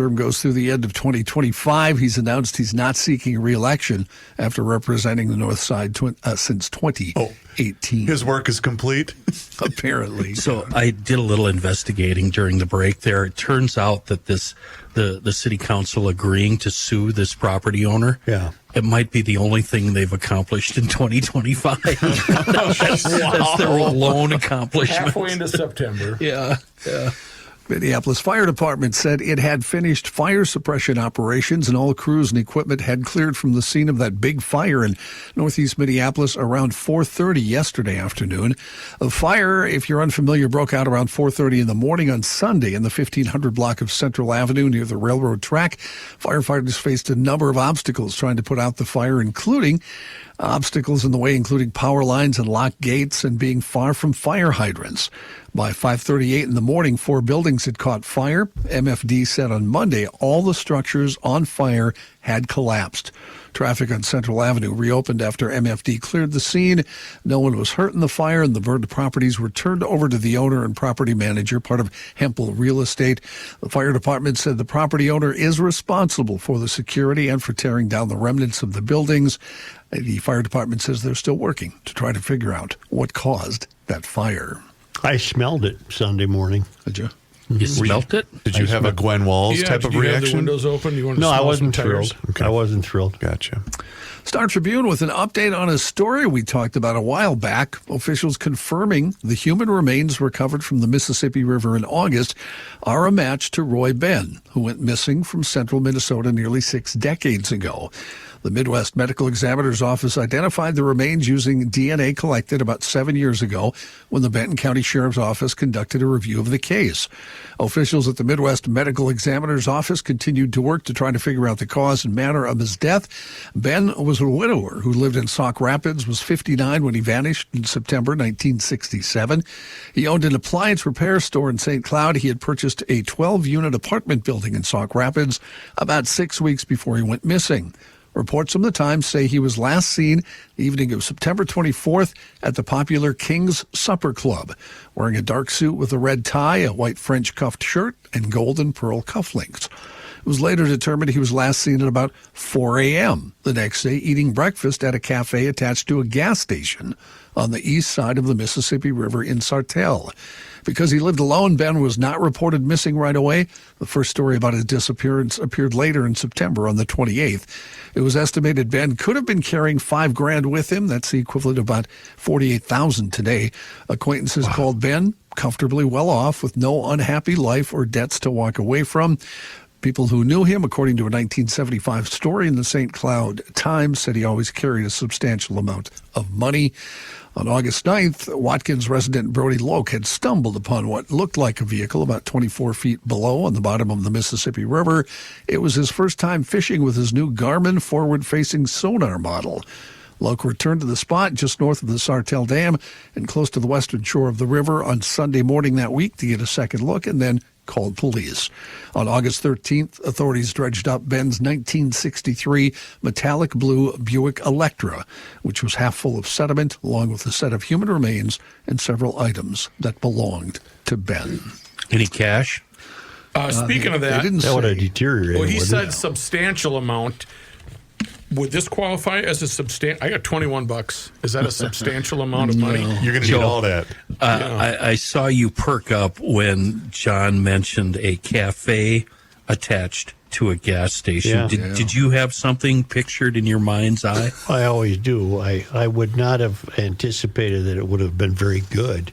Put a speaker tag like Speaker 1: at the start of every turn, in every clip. Speaker 1: term goes through the end of 2025. He's announced he's not seeking re-election after representing the North Side tw- uh, since 2018.
Speaker 2: His work is complete.
Speaker 1: apparently,
Speaker 3: So I did a little investigating during the break there. It turns out that this the the city council agreeing to sue this property owner.
Speaker 2: Yeah.
Speaker 3: It might be the only thing they've accomplished in 2025. that's, that's their lone accomplishment.
Speaker 4: Halfway into September.
Speaker 3: Yeah.
Speaker 1: Minneapolis Fire Department said it had finished fire suppression operations and all crews and equipment had cleared from the scene of that big fire in northeast Minneapolis around 4:30 yesterday afternoon. A fire, if you're unfamiliar, broke out around 4:30 in the morning on Sunday in the 1500 block of Central Avenue near the railroad track. Firefighters faced a number of obstacles trying to put out the fire, including obstacles in the way including power lines and locked gates and being far from fire hydrants. By 5:38 in the morning, four buildings had caught fire. MFD said on Monday all the structures on fire had collapsed. Traffic on Central Avenue reopened after MFD cleared the scene. No one was hurt in the fire, and the burned properties were turned over to the owner and property manager, part of Hempel Real Estate. The fire department said the property owner is responsible for the security and for tearing down the remnants of the buildings. The fire department says they're still working to try to figure out what caused that fire.
Speaker 5: I smelled it Sunday morning.
Speaker 1: Did you?
Speaker 3: You smelt it?
Speaker 2: Did you have a Gwen Walls
Speaker 4: Yeah,
Speaker 2: type
Speaker 4: did
Speaker 2: of
Speaker 4: you have the
Speaker 2: reaction?
Speaker 4: windows open? You wanted to
Speaker 5: No, I
Speaker 4: smell
Speaker 5: wasn't
Speaker 4: some tires?
Speaker 5: thrilled. I wasn't thrilled.
Speaker 2: Gotcha.
Speaker 1: Star Tribune with an update on a story we talked about a while back. Officials confirming the human remains recovered from the Mississippi River in August are a match to Roy Benn, who went missing from central Minnesota nearly six decades ago. The Midwest Medical Examiner's Office identified the remains using DNA collected about seven years ago when the Benton County Sheriff's Office conducted a review of the case. Officials at the Midwest Medical Examiner's Office continued to work to try to figure out the cause and manner of his death. Ben was a widower who lived in Sauk Rapids, was 59 when he vanished in September 1967. He owned an appliance repair store in St. Cloud. He had purchased a 12 unit apartment building in Sauk Rapids about six weeks before he went missing. Reports from the Times say he was last seen the evening of September 24th at the popular King's Supper Club, wearing a dark suit with a red tie, a white French cuffed shirt, and gold and pearl cufflinks. It was later determined he was last seen at about 4 a.m. the next day, eating breakfast at a cafe attached to a gas station on the east side of the Mississippi River in Sartell. Because he lived alone, Ben was not reported missing right away. The first story about his disappearance appeared later in September on the 28th. It was estimated Ben could have been carrying five grand with him. That's the equivalent of about 48,000 today. Acquaintances called Ben comfortably well off with no unhappy life or debts to walk away from. People who knew him, according to a 1975 story in the St. Cloud Times, said he always carried a substantial amount of money. On August 9th, Watkins resident Brody Loke had stumbled upon what looked like a vehicle about 24 feet below on the bottom of the Mississippi River. It was his first time fishing with his new Garmin forward facing sonar model. Loke returned to the spot just north of the Sartell Dam and close to the western shore of the river on Sunday morning that week to get a second look and then called police. On August 13th, authorities dredged up Ben's 1963 metallic blue Buick Electra, which was half full of sediment, along with a set of human remains and several items that belonged to Ben.
Speaker 3: Any cash?
Speaker 4: Uh, speaking of that,
Speaker 1: they didn't
Speaker 5: That would have
Speaker 1: say.
Speaker 5: deteriorated.
Speaker 4: well, he
Speaker 5: wouldn't
Speaker 4: said
Speaker 5: it?
Speaker 4: substantial amount. Would this qualify as a substantial? I got twenty-one bucks. Is that a substantial amount of money?
Speaker 2: You're going to
Speaker 3: Joe.
Speaker 2: need all that.
Speaker 3: Uh, I, I saw you perk up when John mentioned a cafe attached to a gas station.
Speaker 5: Yeah.
Speaker 3: Did, did you have something pictured in your mind's eye?
Speaker 5: I always do. I, I would not have anticipated that it would have been very good.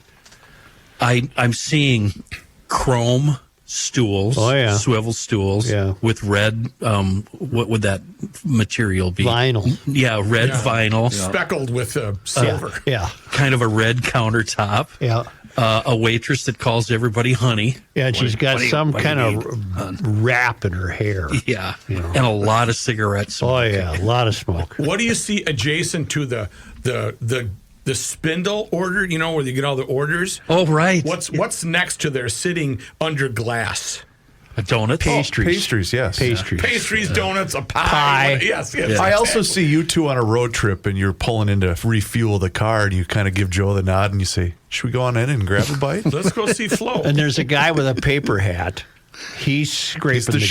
Speaker 3: I I'm seeing chrome stools,
Speaker 5: Oh, yeah.
Speaker 3: swivel stools,
Speaker 5: Yeah.
Speaker 3: with red. Um, what would that material be?
Speaker 5: Vinyl.
Speaker 3: Yeah, red
Speaker 4: Yeah.
Speaker 3: vinyl.
Speaker 4: Speckled with uh, silver.
Speaker 5: Yeah.
Speaker 3: Kind of a red countertop.
Speaker 5: Yeah.
Speaker 3: Uh, a waitress that calls everybody honey.
Speaker 5: Yeah. And she's got
Speaker 3: do you-
Speaker 5: some
Speaker 3: what do you
Speaker 5: kind of wrap in her hair.
Speaker 3: Yeah, and a lot of cigarettes.
Speaker 5: Oh, yeah. A lot of smoke.
Speaker 4: What do you see adjacent to the the the the spindle order? You know where you get all the orders.
Speaker 3: Oh, right.
Speaker 4: What's what's next to there sitting under glass?
Speaker 3: a donut?
Speaker 5: Pastries.
Speaker 2: Pastries, yes.
Speaker 5: Pastries.
Speaker 4: Pastries, donuts, a
Speaker 5: Pie.
Speaker 4: pie. Yes, yes.
Speaker 2: I also see you two on a road trip and you're pulling in to refuel the car and you kind of give Joe the nod and you say, Should we go on in and grab a bite?
Speaker 4: Let's go see Flo.
Speaker 5: And there's a guy with a paper hat. He's scraping
Speaker 2: the
Speaker 5: the